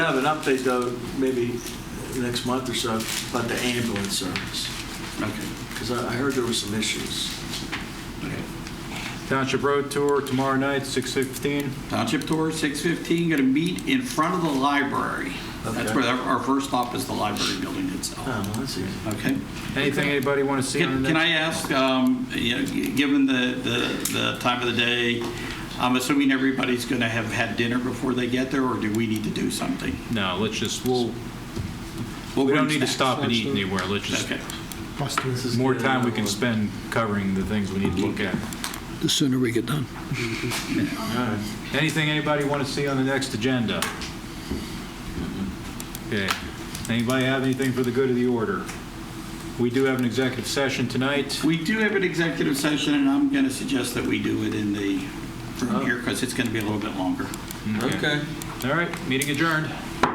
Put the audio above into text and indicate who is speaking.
Speaker 1: Have an update though, maybe next month or so, about the ambulance service,
Speaker 2: Okay.
Speaker 1: because I I heard there were some issues.
Speaker 3: Township Road Tour tomorrow night, 6:15.
Speaker 2: Township tour, 6:15, going to meet in front of the library. That's
Speaker 1: Okay.
Speaker 2: where our our first stop is the library building
Speaker 1: Oh,
Speaker 2: itself.
Speaker 1: well, that's easy.
Speaker 2: Okay?
Speaker 3: Anything anybody want to see on
Speaker 2: Can
Speaker 3: the
Speaker 2: can
Speaker 3: next?
Speaker 2: I ask, um, you know, g- given the, the, the time of the day, I'm assuming everybody's going to have had dinner before they get there, or do we need to do something?
Speaker 3: No, let's just, we'll,
Speaker 2: We'll
Speaker 3: we
Speaker 2: bring
Speaker 3: don't need to
Speaker 2: snacks.
Speaker 3: stop and eat anywhere. Let's just,
Speaker 2: Okay.
Speaker 1: This is
Speaker 3: more
Speaker 1: good.
Speaker 3: time we can spend covering the things we need to look at.
Speaker 4: the sooner we get done.
Speaker 1: All right.
Speaker 3: Anything anybody want to see on the next agenda? Okay. Anybody have anything for the good of the order? We do have an executive session tonight.
Speaker 2: We do have an executive session, and I'm going to suggest that we do it in the,
Speaker 1: Oh.
Speaker 2: from here, because it's going to be a little bit longer.
Speaker 1: Okay.
Speaker 3: All right, meeting adjourned.